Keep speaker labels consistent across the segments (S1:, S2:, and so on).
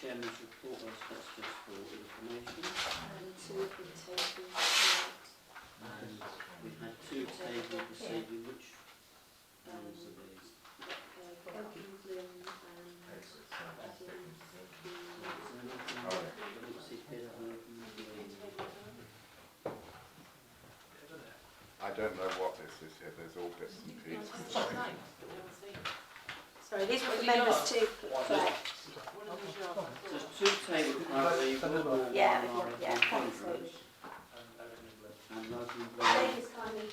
S1: Chairman's report, that's that's just for information.
S2: And two have been taken tonight.
S1: And we've had two tabled this evening, which um, ones are these?
S2: Uh, Bob England and Adam Keane.
S1: Is there anything that we see here that we're doing?
S3: I don't know what this is here, there's all bits and pieces.
S2: Sorry, these were
S4: What
S2: for members to
S4: have you got?
S2: collect.
S1: There's two tabled currently, you've got all one
S2: Yeah,
S1: are
S2: yeah,
S1: in
S2: thanks,
S1: conference,
S2: Dave.
S1: and Logan and
S2: Dave
S1: Brown.
S2: is kindly.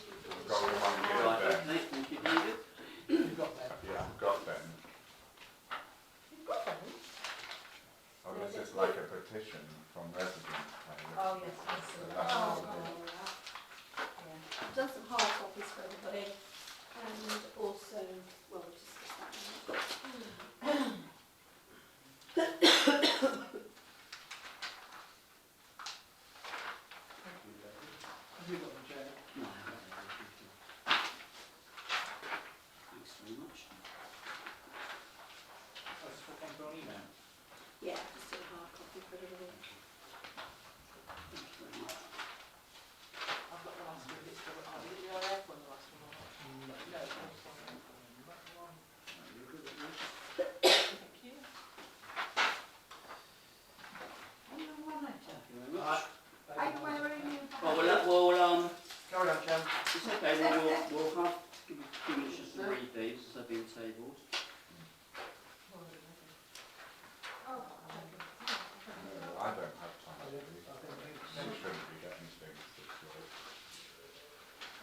S3: Got one
S1: Right,
S3: there.
S1: okay, thank you, David.
S3: Yeah, I've got them. Oh, this is like a petition from residents.
S4: Oh, yes, I
S3: So
S4: see.
S3: that's all
S4: Oh,
S3: good.
S4: right.
S2: I've done some hard copies for everybody and also, well, we'll discuss that in a minute.
S1: No, I haven't, thank you. Thanks very much.
S2: Yeah, just a hard copy for everybody.
S1: Thank you very much. You're good at that. Thank you very much. Well, we'll, let- we'll, um,
S5: Carry on, Jen.
S1: it's okay, we'll, we'll, we'll have, give me two minutes just to read these, as they've been tabled.
S3: No, Uh, I don't have time to read. You shouldn't be getting things this way. It's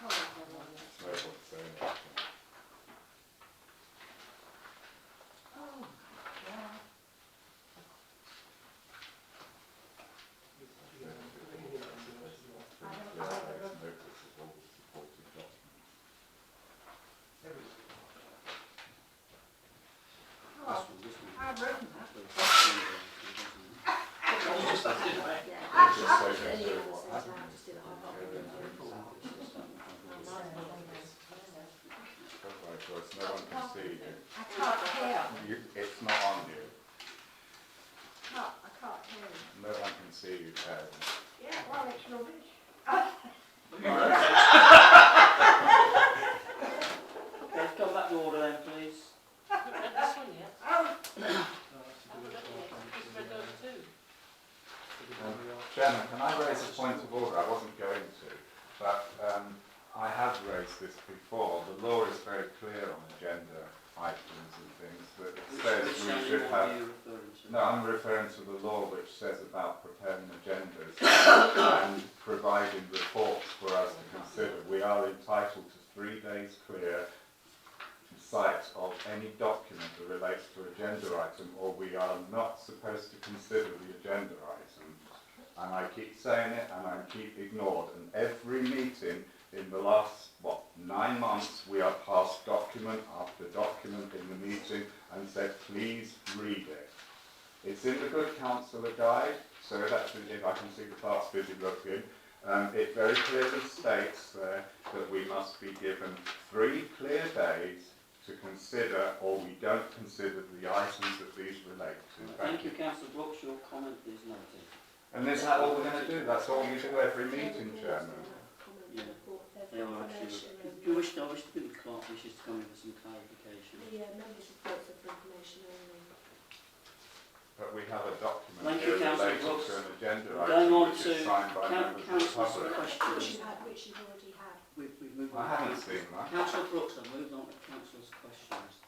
S3: no point saying anything. Yeah, there's notice of all the supporting documents.
S1: This one, this one.
S4: I've written that.
S1: So, that's the, uh,
S2: Yeah.
S3: They just say
S2: Then
S3: they
S2: you
S3: do
S2: can
S3: what
S2: say,
S3: happened.
S2: "Right, just do the hard copy."
S1: this one.
S3: Otherwise, there's no one can see you.
S4: I can't hear.
S3: you. It's not on you.
S4: Can't, I can't hear.
S3: No one can see you, Karen.
S4: Yeah, well, it's rubbish.
S1: Okay, come back to order then, please.
S3: Chairman, can I raise a point of order? I wasn't going to, but um, I have raised this before. The law is very clear on agenda items and things that
S1: Which,
S3: says
S1: which
S3: we should
S1: animal
S3: have.
S1: are you referring to?
S3: No, I'm referring to the law which says about preparing agendas and providing reports for us to consider. We are entitled to three days clear sight of any document that relates to agenda item, or we are not supposed to consider the agenda item. And I keep saying it, and I keep ignored, and every meeting in the last, what, nine months, we have passed document after document in the meeting and said, please read it. It's in the Good Counsellor Guide, so that's in- if I can see the past busy looking. Um, it very clearly states there that we must be given three clear days to consider, or we don't consider the items that these relate to.
S1: Thank you, councillor Brooks, your comment is noted.
S3: And is that all we're going to do? That's all we do every meeting, Chairman.
S2: Comment,
S1: Yeah.
S2: report,
S1: They are actually,
S2: information and-
S1: do you wish, I wish to be clerk, wishes to come in with some clarification.
S2: The uh, members' reports are for information only.
S3: But we have a document
S1: Thank
S3: here
S1: you, Councillor
S3: related
S1: Brooks.
S3: to an agenda
S1: We're
S3: item
S1: going on
S3: which
S1: to
S3: is signed by
S1: Coun-
S3: members of the
S1: councillors'
S3: public.
S2: Which
S1: questions.
S2: you had, which you've already had.
S1: We've, we've moved on.
S3: I haven't seen that.
S1: Councillor Brooks, I've moved on to councillors' questions. Do,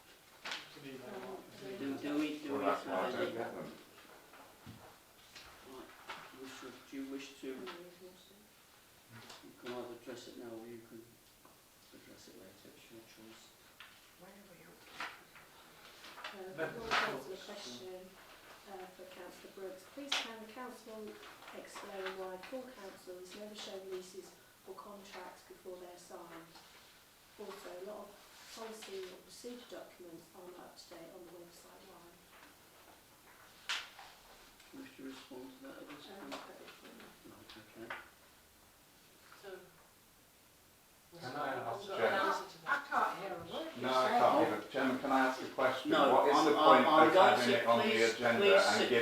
S1: do we, do
S3: Well,
S1: we
S3: that's
S1: have
S3: why I
S1: any?
S3: don't get them.
S1: Right, you should, do you wish to,
S2: Mm,
S1: you
S2: you've also-
S1: can either address it now or you can address it later, it's your choice.
S2: Uh, one councillor question uh, for councillor Brooks. Please can the council explain why full councils never show leases or contracts before they're signed? Also, a lot of policy or procedure documents aren't up to date on the website. Why?
S1: Wish to respond to that at this
S2: Um,
S1: point?
S2: but it's, um,
S1: Right, okay.
S3: Can I ask Jen?
S4: I can't hear a word
S3: No, I can't. Chairman, can I ask a question?
S1: No,
S3: What is
S1: I'm-
S3: the
S1: I'm-
S3: point
S1: I'm
S3: of
S1: going
S3: having
S1: to-
S3: it on
S1: please-
S3: the agenda
S1: please
S3: and
S1: sit
S3: giving